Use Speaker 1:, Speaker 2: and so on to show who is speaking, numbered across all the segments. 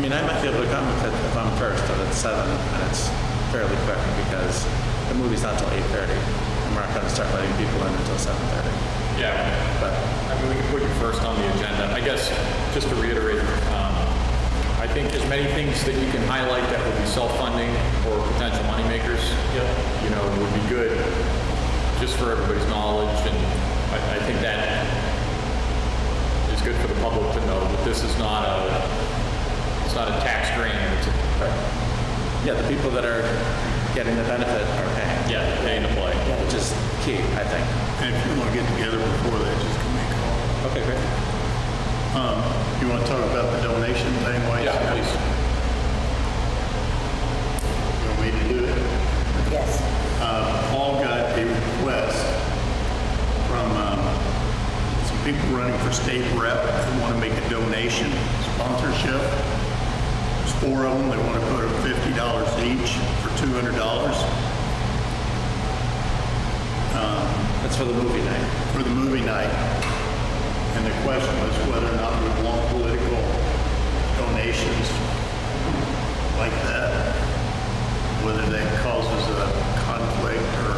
Speaker 1: mean, I might be able to come if, it, if I'm first, but it's seven, and it's fairly quick because the movie's not till eight thirty, and we're not going to start letting people in until seven thirty.
Speaker 2: Yeah,
Speaker 1: But
Speaker 2: I mean, we can put you first on the agenda. I guess, just to reiterate, um, I think as many things that you can highlight that would be self-funding or potential moneymakers, you know, would be good, just for everybody's knowledge, and I, I think that is good for the public to know that this is not a, it's not a tax grant, it's a,
Speaker 1: yeah, the people that are getting the benefit are paying,
Speaker 2: yeah, pay to play.
Speaker 1: which is key, I think.
Speaker 3: And if you want to get together before that, just give me a call.
Speaker 1: Okay, great.
Speaker 3: Um, you want to talk about the donation thing? Why you
Speaker 2: Yeah, please.
Speaker 3: want me to do it?
Speaker 4: Yes.
Speaker 3: Uh, Paul got a request from, um, some people running for state rep who want to make a donation sponsorship. There's four of them. They want to put up fifty dollars each for two hundred dollars
Speaker 1: That's for the movie night.
Speaker 3: Um, for the movie night. And the question was whether or not we want political donations like that, whether that causes a conflict or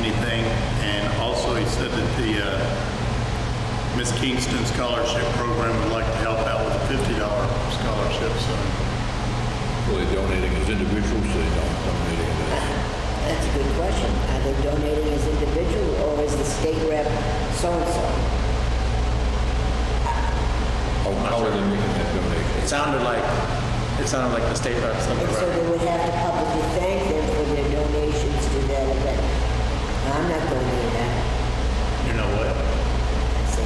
Speaker 3: anything. And also, he said that the uh, Miss Kingston Scholarship Program would like to help out with a $50 scholarship, so
Speaker 5: Well, they're donating as individuals, they don't donate it as.
Speaker 4: That's a good question. Are they donating as individual or is the state rep so-and-so?
Speaker 5: How how are they making that donation?
Speaker 1: It sounded like it sounded like the state reps number.
Speaker 4: And so they would have to publicly thank them for their donations to that event. I'm not going to do that.
Speaker 3: you know what?
Speaker 4: I say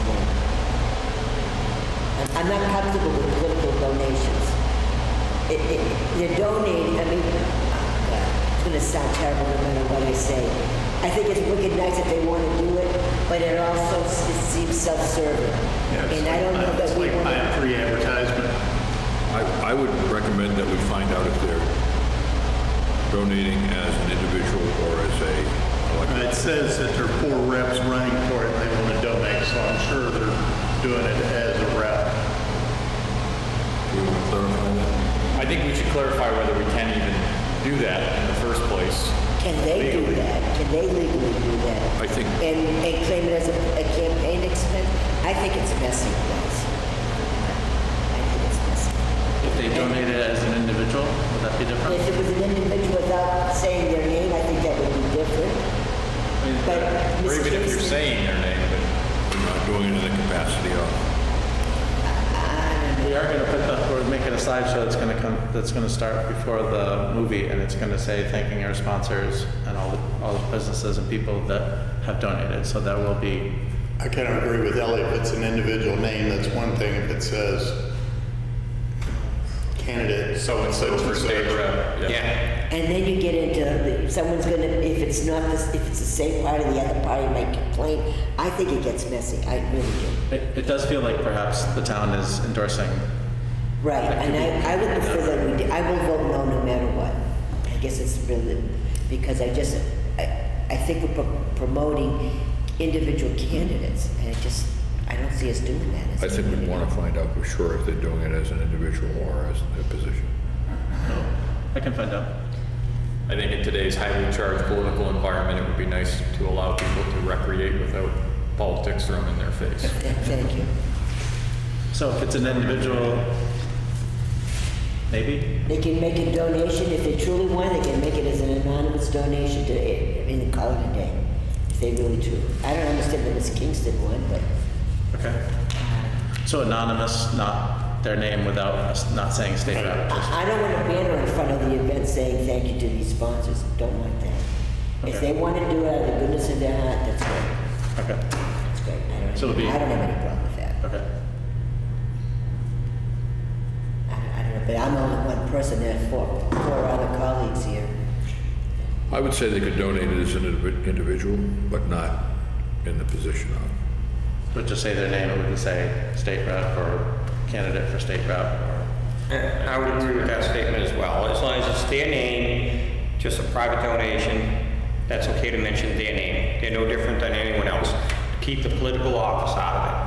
Speaker 4: no. I'm- I'm not comfortable with political donations. It, it, they're donating, I mean, oh, God, it's going to sound terrible no matter what I say. I think it's wicked nice that they want to do it, but it also s- it seems self-serving.
Speaker 3: Yeah, it's
Speaker 4: And I don't
Speaker 3: like
Speaker 4: know
Speaker 3: buying-
Speaker 4: that we
Speaker 3: It's like
Speaker 4: want to.
Speaker 3: buying free advertisement.
Speaker 5: I, I would recommend that we find out if they're donating as an individual or as a,
Speaker 3: Uh,
Speaker 5: like,
Speaker 3: It says that there are four reps running for it, and they want to donate, so I'm sure they're doing it as a rep.
Speaker 5: do you want to clarify that?
Speaker 2: I think we should clarify whether we can even do that in the first place.
Speaker 4: Can they do
Speaker 2: Legally.
Speaker 4: that? Can they legally do that?
Speaker 5: I think,
Speaker 4: And, and claim it as a, a campaign expense? I think it's messy, guys. I think it's messy.
Speaker 1: If they donated as an individual, would that be different?
Speaker 4: If it was an individual without saying their name, I think that would be different. But
Speaker 2: Or
Speaker 4: Ms.
Speaker 2: even if you're
Speaker 4: Kingston,
Speaker 2: saying their name, but
Speaker 5: we're not doing it in the capacity of,
Speaker 1: We are gonna put the, we're making a slideshow that's gonna come, that's gonna start before the movie, and it's gonna say thanking our sponsors and all the, all the businesses and people that have donated, so that will be,
Speaker 3: I kind of agree with Ellie, if it's an individual name, that's one thing, if it says candidate.
Speaker 2: so and so for
Speaker 3: such and
Speaker 2: state
Speaker 3: such.
Speaker 2: rep. Yeah.
Speaker 4: And then you get into, the- someone's gonna, if it's not, the- if it's the same party, the other party might complain. I think it gets messy, I really do.
Speaker 1: it, it does feel like perhaps the town is endorsing.
Speaker 4: Right, and I, I would prefer that we, did- I will vote no no matter what. I guess it's really, because I just, I, I think we're pro- promoting individual candidates, and I just, I don't see us doing that. as
Speaker 5: I
Speaker 4: a
Speaker 5: think we
Speaker 4: community.
Speaker 5: want to find out for sure if they're doing it as an individual or as a position.
Speaker 1: I can find out.
Speaker 2: I think in today's highly charged political environment, it would be nice to allow people to recreate without politics thrown in their face.
Speaker 4: Th- Thank you.
Speaker 1: So if it's an individual, maybe?
Speaker 4: They can make a donation, if they truly want, they can make it as an anonymous donation to, I mean, call it a day, if they really truly. I don't understand the Miss Kingston one, but
Speaker 1: Okay. So anonymous, not their name without, us- not saying state rep. just-
Speaker 4: I I don't want a banner in front of the event saying thank you to these sponsors, don't want that. If
Speaker 1: Okay.
Speaker 4: they want to do it out of the goodness of their heart, that's great,
Speaker 1: Okay,
Speaker 4: that's great. I don't-
Speaker 1: So it'll be-
Speaker 4: I don't have any problem with that.
Speaker 1: okay.
Speaker 4: I don't- I don't know, but I'm only one person, there are four, four other colleagues here.
Speaker 5: I would say they could donate it as an indivi- individual, but not in the position of.
Speaker 1: Would just say their name, it wouldn't say state rep or candidate for state rep or.
Speaker 6: And I would agree with that statement as well. As long as it's their name, just a private donation, that's okay to mention their name. They're no different than anyone else. Keep the political office out of it.